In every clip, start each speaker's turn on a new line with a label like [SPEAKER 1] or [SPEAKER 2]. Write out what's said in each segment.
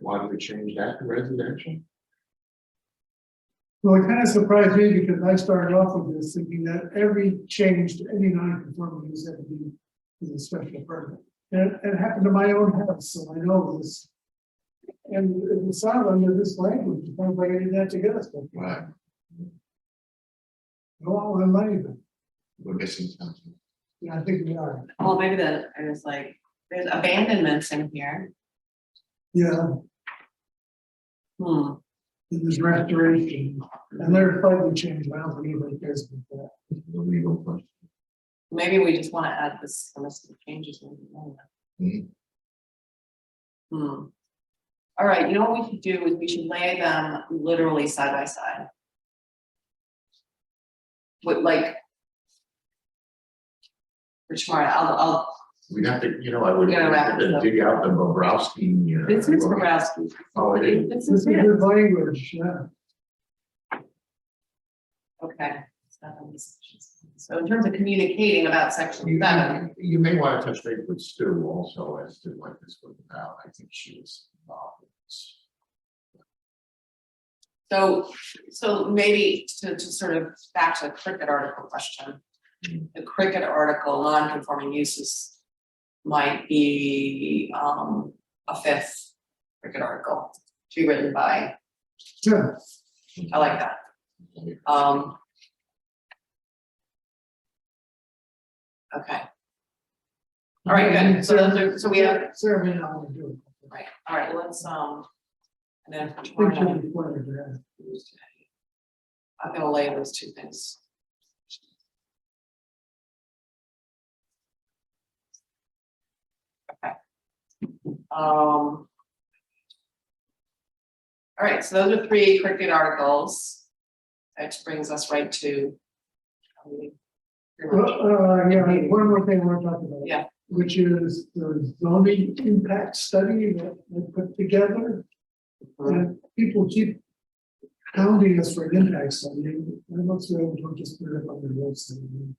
[SPEAKER 1] Why do we change that to residential?
[SPEAKER 2] Well, it kind of surprised me because I started off with this thinking that every change to any non-conforming use had to be is a special permit. And it happened to my own house, so I know this. And it was sound under this language, if anybody did that together, so
[SPEAKER 1] Right,
[SPEAKER 2] go on with money, but
[SPEAKER 1] we're missing something.
[SPEAKER 2] yeah, I think we are.
[SPEAKER 3] Well, maybe that, I was like, there's abandonments in here.
[SPEAKER 2] Yeah,
[SPEAKER 3] Hmm,
[SPEAKER 2] and there's restoration and they're slightly changed. I don't think anybody cares about
[SPEAKER 1] The legal question.
[SPEAKER 3] maybe we just wanna add this, list of changes. maybe, I don't know. Hmm. All right, you know what we should do is we should lay them literally side by side. With like. Rich Mart, I'll, I'll,
[SPEAKER 1] We'd have to, you know, I would
[SPEAKER 3] Yeah,
[SPEAKER 1] have to
[SPEAKER 3] right.
[SPEAKER 1] dig out the Bobrowski. uh,
[SPEAKER 3] this is Bobrowski.
[SPEAKER 1] Oh, it is.
[SPEAKER 3] This
[SPEAKER 2] that. This is
[SPEAKER 3] is it,
[SPEAKER 2] good language, yeah.
[SPEAKER 3] okay. So in terms of communicating about section
[SPEAKER 1] You
[SPEAKER 3] seven.
[SPEAKER 1] you may want to touch base with Stu also as to what this was about. I think she was involved. in this.
[SPEAKER 3] So, so maybe to, to sort of back to the cricket article question.
[SPEAKER 1] Mm.
[SPEAKER 3] The cricket article, non-conforming uses might be, um, a fifth cricket article to be written by,
[SPEAKER 2] Yeah,
[SPEAKER 3] I like that,
[SPEAKER 1] Okay.
[SPEAKER 3] um. Okay, all right, good, so those are, so we have,
[SPEAKER 2] Sarah may not want to do it.
[SPEAKER 3] right, all right, let's, um, and then for
[SPEAKER 2] I think
[SPEAKER 3] tomorrow
[SPEAKER 2] she'll
[SPEAKER 3] night.
[SPEAKER 2] be quite addressed.
[SPEAKER 3] Tuesday. I'm gonna lay those two things. Okay. Um. All right, so those are three cricket articles. That brings us right to. um, pretty
[SPEAKER 2] Uh,
[SPEAKER 3] much.
[SPEAKER 2] uh, yeah, one more thing we're talking about.
[SPEAKER 3] Yeah.
[SPEAKER 2] Which is the zoning impact study that we put together.
[SPEAKER 3] Uh-huh.
[SPEAKER 2] And people keep hounding us for an impact study. I'm not sure, we don't just put it up on the website. And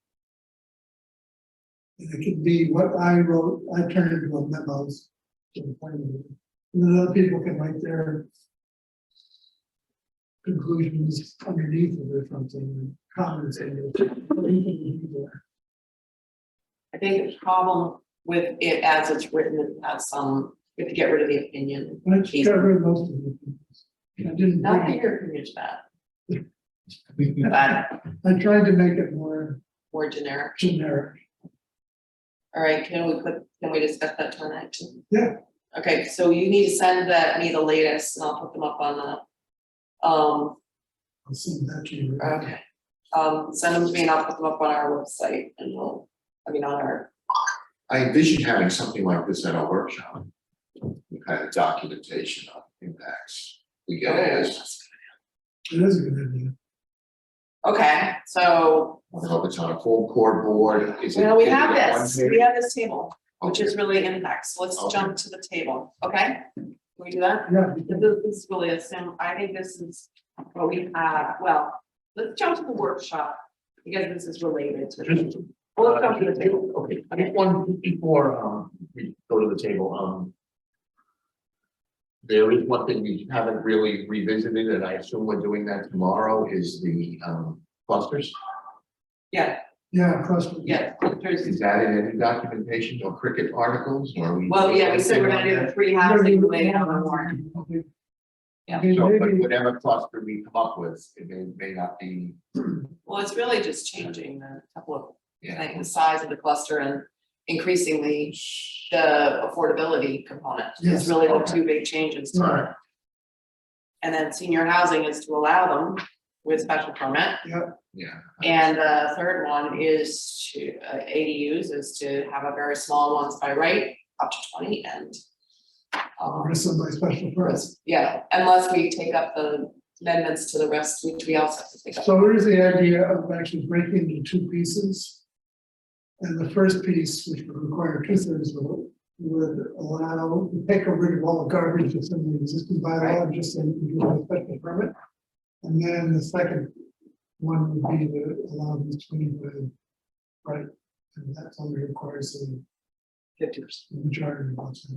[SPEAKER 2] it could be what I wrote, I turned into a memos. to the planning board. And then other people can write their conclusions underneath of it or something, comments in it.
[SPEAKER 3] I think the problem with it as it's written, it has some, we have to get rid of the opinion.
[SPEAKER 2] I just got rid of most of it. I didn't,
[SPEAKER 3] Not that
[SPEAKER 2] bring it.
[SPEAKER 3] your opinion's bad, but I'm
[SPEAKER 2] I tried to make it more
[SPEAKER 3] more generic.
[SPEAKER 2] generic.
[SPEAKER 3] All right, can we put, can we discuss that tonight? too?
[SPEAKER 2] Yeah.
[SPEAKER 3] Okay, so you need to send that, me the latest, and I'll put them up on the, um,
[SPEAKER 2] I'll send that to you.
[SPEAKER 3] okay. Um, send them to me and I'll put them up on our website and we'll, I mean, on our,
[SPEAKER 1] I envision having something like this at our workshop. the Kind of documentation of impacts. We
[SPEAKER 3] Oh,
[SPEAKER 1] get as,
[SPEAKER 2] It is a good idea.
[SPEAKER 3] okay, so,
[SPEAKER 1] I don't know if it's on a full core board, is it?
[SPEAKER 3] well, we
[SPEAKER 1] is it
[SPEAKER 3] have
[SPEAKER 1] at one
[SPEAKER 3] this,
[SPEAKER 1] page?
[SPEAKER 3] we have this table, which
[SPEAKER 1] Okay.
[SPEAKER 3] is really impacts, let's
[SPEAKER 1] Okay.
[SPEAKER 3] jump to the table, okay? Can we do that?
[SPEAKER 2] Yeah,
[SPEAKER 3] This
[SPEAKER 2] because-
[SPEAKER 3] this is really a sim, I think this is what we have, well, let's jump to the workshop, because this is related to.
[SPEAKER 4] Just-
[SPEAKER 3] Well,
[SPEAKER 1] Uh,
[SPEAKER 3] let's jump to the table.
[SPEAKER 4] Okay, I think one before um we go to the table, um.
[SPEAKER 1] There is one thing we haven't really revisited, and I assume we're doing that tomorrow, is the um clusters.
[SPEAKER 3] Yeah,
[SPEAKER 2] yeah, cross.
[SPEAKER 3] yeah,
[SPEAKER 1] Is that in any documentation or cricket articles, or are we?
[SPEAKER 3] well, yeah, we said we're gonna do the three housing related on the warrant.
[SPEAKER 2] Okay.
[SPEAKER 3] Yeah.
[SPEAKER 2] Okay,
[SPEAKER 1] So, but
[SPEAKER 2] maybe-
[SPEAKER 1] whatever cluster we come up with, it may, may not be,
[SPEAKER 3] Well, it's really just changing the couple of,
[SPEAKER 1] yeah.
[SPEAKER 3] things, the size of the cluster and increasingly the affordability component. It's
[SPEAKER 2] Yes.
[SPEAKER 3] really the
[SPEAKER 1] Okay.
[SPEAKER 3] two big changes. to it.
[SPEAKER 1] Alright.
[SPEAKER 3] And then senior housing is to allow them with special permit.
[SPEAKER 1] Yeah,
[SPEAKER 3] And the third one is to, uh, ADUs is to have a very small ones by right, up to twenty and.
[SPEAKER 2] I'll
[SPEAKER 3] Um,
[SPEAKER 2] risk my special press.
[SPEAKER 3] yeah, unless we take up the amendments to the rest, which we also have to take up.
[SPEAKER 2] So here's the idea of actually breaking into two pieces. And the first piece, which would require two thirds vote, would allow, take a rid of all the garbage that's in the existing bylaw, and just say you do a special permit. And then the second one would be to allow the twenty-five, right? And that only requires a
[SPEAKER 3] Fifty percent.
[SPEAKER 2] majority of votes.